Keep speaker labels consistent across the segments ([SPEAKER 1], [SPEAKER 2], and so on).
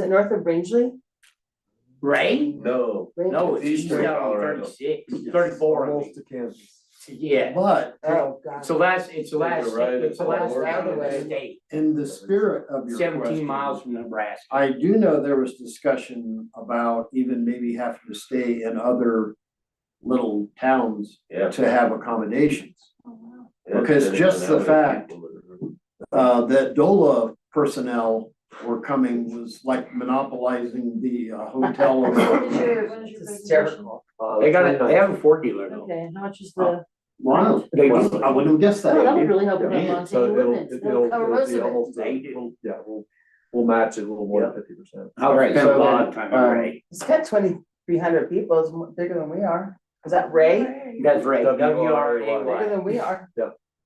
[SPEAKER 1] it north of Rangeley?
[SPEAKER 2] Ray?
[SPEAKER 3] No,
[SPEAKER 2] No, it's
[SPEAKER 3] Eastern
[SPEAKER 2] east out on
[SPEAKER 3] Colorado.
[SPEAKER 2] thirty-six, thirty-four, I mean.
[SPEAKER 4] Almost to Kansas.
[SPEAKER 2] yeah, but
[SPEAKER 1] Oh, God.
[SPEAKER 2] it's the last, it's the
[SPEAKER 3] Take a
[SPEAKER 2] last,
[SPEAKER 3] right,
[SPEAKER 2] it's
[SPEAKER 3] it's
[SPEAKER 2] the
[SPEAKER 3] all
[SPEAKER 2] last
[SPEAKER 3] working
[SPEAKER 2] out of the
[SPEAKER 3] today.
[SPEAKER 2] state,
[SPEAKER 4] In the spirit of your question.
[SPEAKER 2] seventeen miles from Nebraska.
[SPEAKER 4] I do know there was discussion about even maybe having to stay in other little towns
[SPEAKER 3] yeah.
[SPEAKER 4] to have accommodations.
[SPEAKER 3] yeah,
[SPEAKER 4] Because
[SPEAKER 3] depending
[SPEAKER 4] just
[SPEAKER 3] on
[SPEAKER 4] the
[SPEAKER 3] how many
[SPEAKER 4] fact-
[SPEAKER 3] people that
[SPEAKER 4] Uh, that DOLA personnel were coming was like monopolizing the uh, hotel.
[SPEAKER 5] When is
[SPEAKER 4] or-
[SPEAKER 5] your, when is your presentation?
[SPEAKER 1] Hysterical.
[SPEAKER 2] They got a, they have a Ford dealer though.
[SPEAKER 1] Okay, how much is the,
[SPEAKER 4] Wow, they was- I wouldn't have guessed
[SPEAKER 1] oh, that would
[SPEAKER 4] that.
[SPEAKER 1] really help with
[SPEAKER 4] Yeah,
[SPEAKER 1] Montana
[SPEAKER 5] so it'll-
[SPEAKER 1] ordinance.
[SPEAKER 5] it'll-
[SPEAKER 1] That'll
[SPEAKER 5] it'll
[SPEAKER 6] Oh,
[SPEAKER 1] cover
[SPEAKER 5] be
[SPEAKER 1] most of it.
[SPEAKER 5] almost-
[SPEAKER 2] They do.
[SPEAKER 5] Yeah, we'll, we'll match it a little more than fifty percent.
[SPEAKER 2] I
[SPEAKER 4] Right,
[SPEAKER 2] spent a
[SPEAKER 4] so
[SPEAKER 2] lot
[SPEAKER 4] then,
[SPEAKER 2] of time
[SPEAKER 4] um,
[SPEAKER 2] in Ray.
[SPEAKER 1] It's got twenty-three hundred people, it's mo- bigger than we are. Is that Ray?
[SPEAKER 2] That's Ray,
[SPEAKER 5] W
[SPEAKER 2] W
[SPEAKER 5] R
[SPEAKER 2] R
[SPEAKER 5] A Y.
[SPEAKER 2] A
[SPEAKER 1] Bigger
[SPEAKER 2] Y.
[SPEAKER 1] than we are.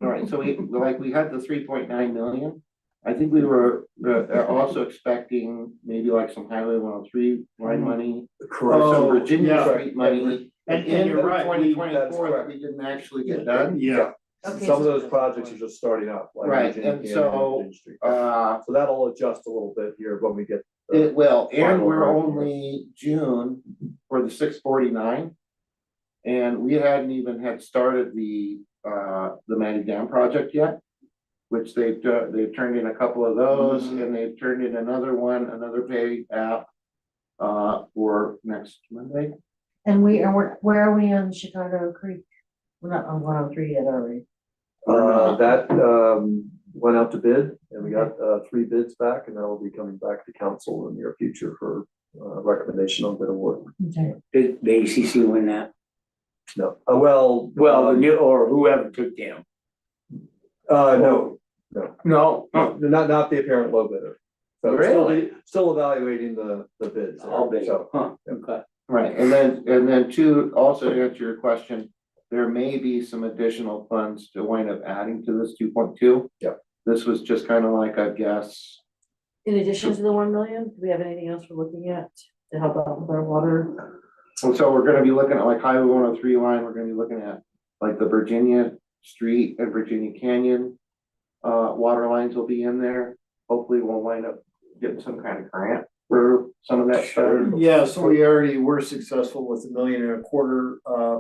[SPEAKER 7] All right, so we, like, we had the three point nine million. I think we were, uh, also expecting maybe like some highway one oh three line money. Or some
[SPEAKER 4] Oh,
[SPEAKER 7] Virginia
[SPEAKER 4] yeah.
[SPEAKER 7] Street money.
[SPEAKER 4] And, and you're right.
[SPEAKER 7] Twenty
[SPEAKER 4] we-
[SPEAKER 7] twenty-four that we didn't actually get done.
[SPEAKER 4] Yeah,
[SPEAKER 1] Okay,
[SPEAKER 5] Some
[SPEAKER 1] so-
[SPEAKER 5] of those projects are just starting up, like
[SPEAKER 7] Right,
[SPEAKER 5] Virginia
[SPEAKER 7] and
[SPEAKER 5] Canyon
[SPEAKER 7] so,
[SPEAKER 5] Virginia Street.
[SPEAKER 7] Uh,
[SPEAKER 5] So that'll adjust a little bit here when we get. the-
[SPEAKER 7] it will, and
[SPEAKER 5] Final
[SPEAKER 7] we're
[SPEAKER 5] version.
[SPEAKER 7] only June for the six forty-nine. And we hadn't even had started the, uh, the Manny Dam project yet. Which they've, uh, they've turned in a couple of those
[SPEAKER 4] Mhm.
[SPEAKER 7] and they've turned in another one, another pay app. Uh, for next Monday.
[SPEAKER 6] And we, and we're, where are we on Chicago Creek? We're not on one oh three yet, are we?
[SPEAKER 5] Uh, that, um, went out to bid and we got, uh, three bids back and that'll be coming back to council in the near future for, uh, recommendation on bid award.
[SPEAKER 6] Okay.
[SPEAKER 2] Did the ACC win that?
[SPEAKER 5] No, uh, well.
[SPEAKER 2] Well, the
[SPEAKER 5] um,
[SPEAKER 2] new, or whoever took them.
[SPEAKER 5] Uh, no,
[SPEAKER 2] No.
[SPEAKER 5] no, not, not the apparent low bidder. So we're still-
[SPEAKER 2] Really?
[SPEAKER 5] Still evaluating the, the bids. there.
[SPEAKER 2] All big,
[SPEAKER 5] So,
[SPEAKER 2] huh, okay.
[SPEAKER 7] Right, and then, and then two, also to answer your question, there may be some additional funds to wind up adding to this two point two.
[SPEAKER 5] Yep.
[SPEAKER 7] This was just kind of like a guess.
[SPEAKER 6] In addition to the one million, do we have anything else we're looking at to help out with our water?
[SPEAKER 7] And so we're gonna be looking at like Highway one oh three line, we're gonna be looking at like the Virginia Street and Virginia Canyon. Uh, water lines will be in there. Hopefully we'll wind up getting some kind of grant for some of that stuff.
[SPEAKER 4] yeah, so we already were successful with a million and a quarter, uh,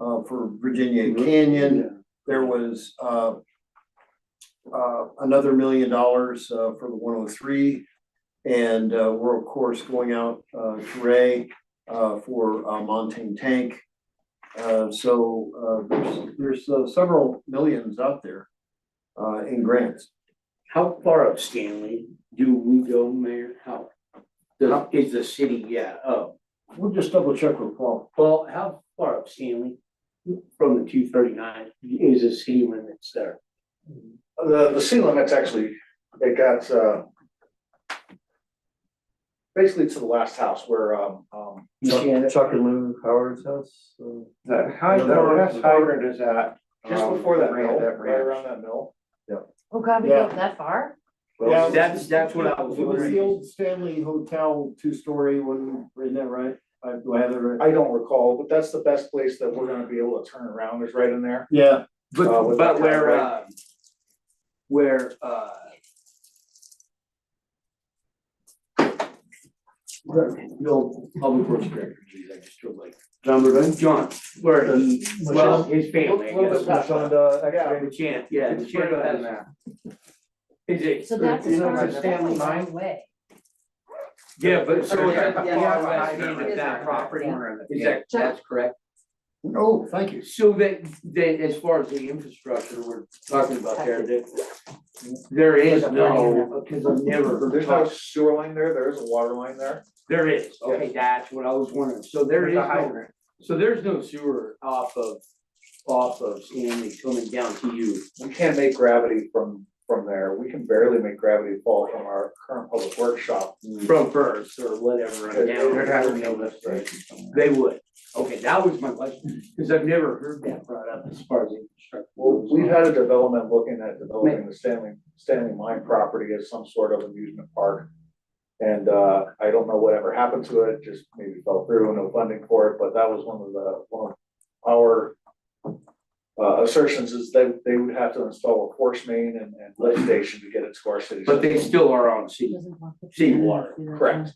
[SPEAKER 4] uh, for Virginia Canyon. There was uh. Uh, another million dollars uh for the one oh three. And uh, we're of course going out uh to Ray uh for uh Montane Tank. Uh, so uh there's there's uh, several millions out there uh in grants.
[SPEAKER 2] How far up Stanley do we go, Mayor? How? How is the city, yeah, oh,
[SPEAKER 4] We'll just double check with Paul.
[SPEAKER 2] well, how far up Stanley from the two thirty-nine is the city limits there?
[SPEAKER 8] The, the sea limit's actually, it got, uh, basically to the last house where, um, um,
[SPEAKER 5] Chuck Chuck and Lou Howard's house. uh,
[SPEAKER 7] That hydrant,
[SPEAKER 5] No,
[SPEAKER 7] that
[SPEAKER 5] no.
[SPEAKER 7] hydrant is at.
[SPEAKER 8] just
[SPEAKER 7] um,
[SPEAKER 8] before that
[SPEAKER 7] right at
[SPEAKER 8] mill,
[SPEAKER 7] that
[SPEAKER 8] right
[SPEAKER 7] ranch.
[SPEAKER 8] around that mill.
[SPEAKER 6] Oh, God, we go that far?
[SPEAKER 5] well,
[SPEAKER 4] Yeah.
[SPEAKER 2] That's, that's what I was wondering.
[SPEAKER 4] old Stanley Hotel two-story one, isn't that right? I, do I have that right?
[SPEAKER 8] I don't recall, but that's the best place that we're gonna be able to turn around is right in there.
[SPEAKER 4] Yeah,
[SPEAKER 8] Uh,
[SPEAKER 2] But,
[SPEAKER 8] with
[SPEAKER 2] but
[SPEAKER 8] that
[SPEAKER 2] where,
[SPEAKER 8] driveway.
[SPEAKER 2] uh, where, uh,
[SPEAKER 4] the old
[SPEAKER 2] uh, public works director, geez, I just feel like,
[SPEAKER 4] John Burbank.
[SPEAKER 2] John, where he, well, his
[SPEAKER 8] Little
[SPEAKER 2] family, I
[SPEAKER 8] little bit
[SPEAKER 2] guess.
[SPEAKER 8] past that.
[SPEAKER 5] Shonda,
[SPEAKER 8] Yeah.
[SPEAKER 5] X-ray.
[SPEAKER 2] The chant, yeah, the
[SPEAKER 7] It's further
[SPEAKER 2] chant
[SPEAKER 7] than
[SPEAKER 2] has,
[SPEAKER 7] that.
[SPEAKER 2] is it?
[SPEAKER 6] So that's
[SPEAKER 7] You
[SPEAKER 6] as
[SPEAKER 7] know,
[SPEAKER 6] far as,
[SPEAKER 7] like
[SPEAKER 6] that's a
[SPEAKER 7] Stanley
[SPEAKER 6] long way.
[SPEAKER 2] Yeah, but so is
[SPEAKER 1] Yeah,
[SPEAKER 2] that,
[SPEAKER 1] yeah,
[SPEAKER 2] yeah,
[SPEAKER 1] yeah,
[SPEAKER 2] I mean,
[SPEAKER 1] yeah.
[SPEAKER 2] is that property, is
[SPEAKER 7] Yeah.
[SPEAKER 2] that, that's correct?
[SPEAKER 4] Oh, thank you.
[SPEAKER 2] So that, that as far as the infrastructure we're talking about there, that there is no, because I've never
[SPEAKER 8] There's no
[SPEAKER 2] talked,
[SPEAKER 8] sewer line there, there is a water line there.
[SPEAKER 2] there is, okay, that's what I was wondering, so there is
[SPEAKER 7] There's a
[SPEAKER 2] no,
[SPEAKER 7] hydrant.
[SPEAKER 2] so there's no sewer off of, off of Stanley coming down to you.
[SPEAKER 8] We can't make gravity from, from there. We can barely make gravity fall from our current public workshop.
[SPEAKER 2] From first or whatever, on down
[SPEAKER 8] They're having no lift
[SPEAKER 2] there. They would, okay, that was my question, because I've never heard that brought up as far as infrastructure.
[SPEAKER 8] Well, we've had a development looking at developing the Stanley, Stanley Mine property as some sort of amusement park. And, uh, I don't know whatever happened to it, just maybe fell through, no funding for it, but that was one of the, one of our uh, assertions is they, they would have to install a force main and, and lift station to get it to our city.
[SPEAKER 2] but they
[SPEAKER 8] system.
[SPEAKER 2] still are on C.
[SPEAKER 6] Doesn't cost us
[SPEAKER 2] Seawater,
[SPEAKER 6] anything to do that,
[SPEAKER 8] correct.
[SPEAKER 6] yeah.